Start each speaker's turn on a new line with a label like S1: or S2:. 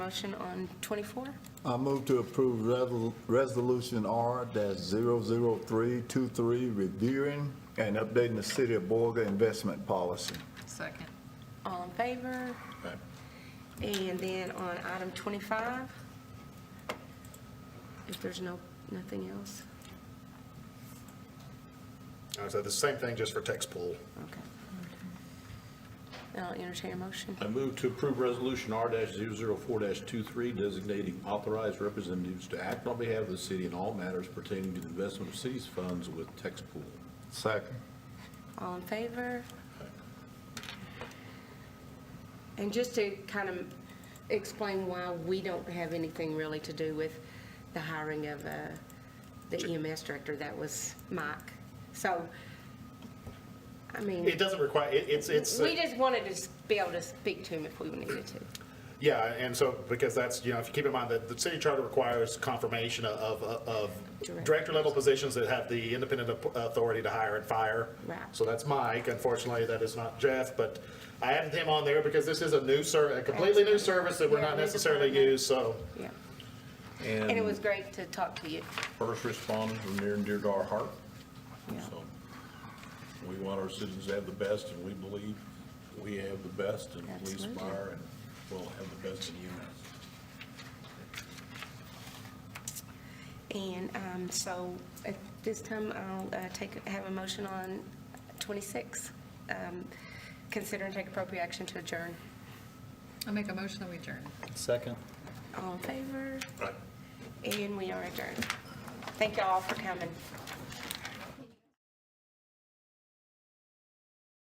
S1: Motion on 24?
S2: I move to approve Resol- Resolution R-00323, reviewing and updating the City of Borga investment policy.
S3: Second.
S1: All in favor? And then on item 25, if there's no, nothing else,
S4: Uh, So the same thing just for text pool.
S1: okay. I'll entertain a motion.
S5: I move to approve Resolution R-004-23 designating authorized representatives to act on behalf of the city in all matters pertaining to the investment of city's funds with Tex Pool.
S2: Second.
S1: All in favor? And just to kind of explain why we don't have anything really to do with the hiring of uh, the EMS director, that was Mike. So, I mean.
S4: It doesn't require, it- it's, it's, uh,
S1: We just wanted to s- be able to speak to him if we needed to.
S4: yeah, and so, because that's, you know, if you keep in mind that the city charter requires confirmation of, of
S1: Director.
S4: director level positions that have the independent ap- authority to hire and fire.
S1: Right.
S4: So that's Mike, unfortunately, that is not Jeff, but I added him on there because this is a new ser, a completely new service that we're
S1: Yeah,
S4: not
S1: new
S4: necessarily
S1: department.
S4: used, so.
S1: Yeah. And it was great to talk to you.
S5: First responders are near and dear to our heart.
S1: Yeah.
S5: So we want our citizens to have the best, and we believe we have the best in police,
S1: Absolutely.
S5: fire, and we'll have the best in EMS.
S1: And um, so at this time, I'll uh, take, have a motion on 26. um, Consider and take appropriate action to adjourn.
S3: I make a motion that we adjourn.
S6: Second.
S1: All in favor?
S4: Right.
S1: And we are adjourned. Thank you all for coming.